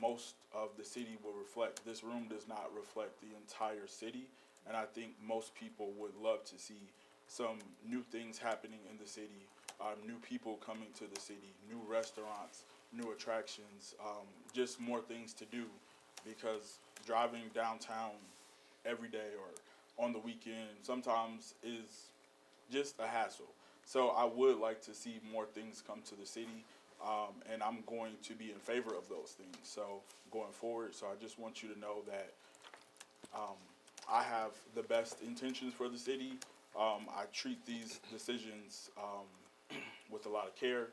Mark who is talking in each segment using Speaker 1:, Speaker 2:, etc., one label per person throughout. Speaker 1: most of the city will reflect. This room does not reflect the entire city, and I think most people would love to see some new things happening in the city, um, new people coming to the city, new restaurants, new attractions, um, just more things to do. Because driving downtown every day or on the weekend sometimes is just a hassle. So I would like to see more things come to the city, um, and I'm going to be in favor of those things. So going forward, so I just want you to know that um, I have the best intentions for the city. Um, I treat these decisions um, with a lot of care.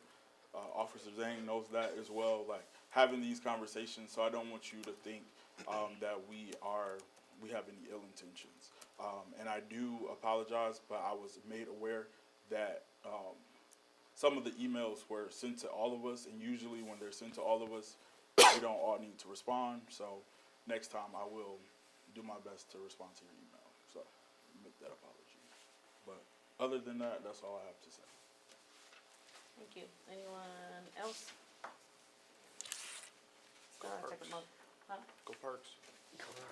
Speaker 1: Uh, Officer Zhang knows that as well. Like having these conversations, so I don't want you to think um, that we are we have any ill intentions. Um, and I do apologize, but I was made aware that um, some of the emails were sent to all of us, and usually when they're sent to all of us, we don't all need to respond. So next time I will do my best to respond to your email. So make that apology. But other than that, that's all I have to say.
Speaker 2: Thank you. Anyone else?
Speaker 3: Go
Speaker 2: I'll take a
Speaker 3: Perks.
Speaker 2: mo- huh?
Speaker 3: Go Parks.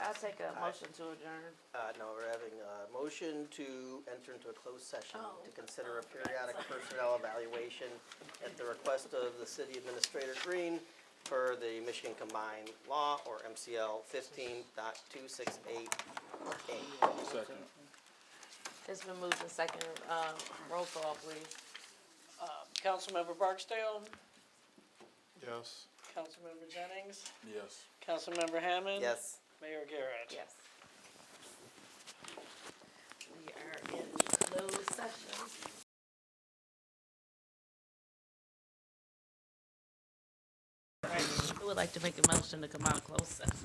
Speaker 2: I'll take a
Speaker 4: Aye.
Speaker 2: motion to adjourn.
Speaker 4: Uh, no, we're having a motion to enter into a closed session
Speaker 2: Oh.
Speaker 4: to consider a periodic personnel evaluation at the request of the city administrator Green for the Michigan Combined Law or MCL fifteen dot two six eight A.
Speaker 1: Second.
Speaker 2: It's been moved and second, uh, roll call, please.
Speaker 5: Um, Councilmember Barksdale,
Speaker 3: Yes.
Speaker 5: Councilmember Jennings,
Speaker 1: Yes.
Speaker 5: Councilmember Hammond.
Speaker 4: Yes.
Speaker 5: Mayor Garrett.
Speaker 2: Yes. We are in closed session. All right, who would like to make a motion to come out of closed session?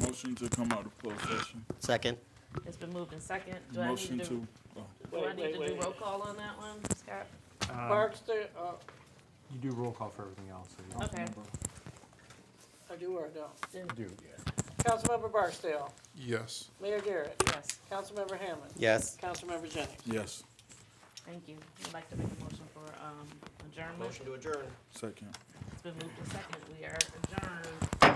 Speaker 1: Motion to come out of closed session.
Speaker 4: Second.
Speaker 2: It's been moved and second. Do I
Speaker 1: Motion
Speaker 2: need
Speaker 1: to,
Speaker 2: to,
Speaker 1: oh,
Speaker 2: do I
Speaker 5: Wait,
Speaker 2: need
Speaker 5: wait,
Speaker 2: to do
Speaker 5: wait.
Speaker 2: roll call on that one, Scott?
Speaker 5: Barksdale, uh,
Speaker 6: You do roll call for everything else. so you don't-
Speaker 2: Okay.
Speaker 5: I do or I don't?
Speaker 6: You do, yeah.
Speaker 5: Councilmember Barksdale,
Speaker 3: Yes.
Speaker 5: Mayor Garrett,
Speaker 2: Yes.
Speaker 5: Councilmember Hammond.
Speaker 4: Yes.
Speaker 5: Councilmember Jennings.
Speaker 1: yes,
Speaker 2: Thank you. I'd like to make a motion for um, adjournment.
Speaker 4: Motion to adjourn.
Speaker 1: second.
Speaker 2: It's been moved to second. We are adjourned.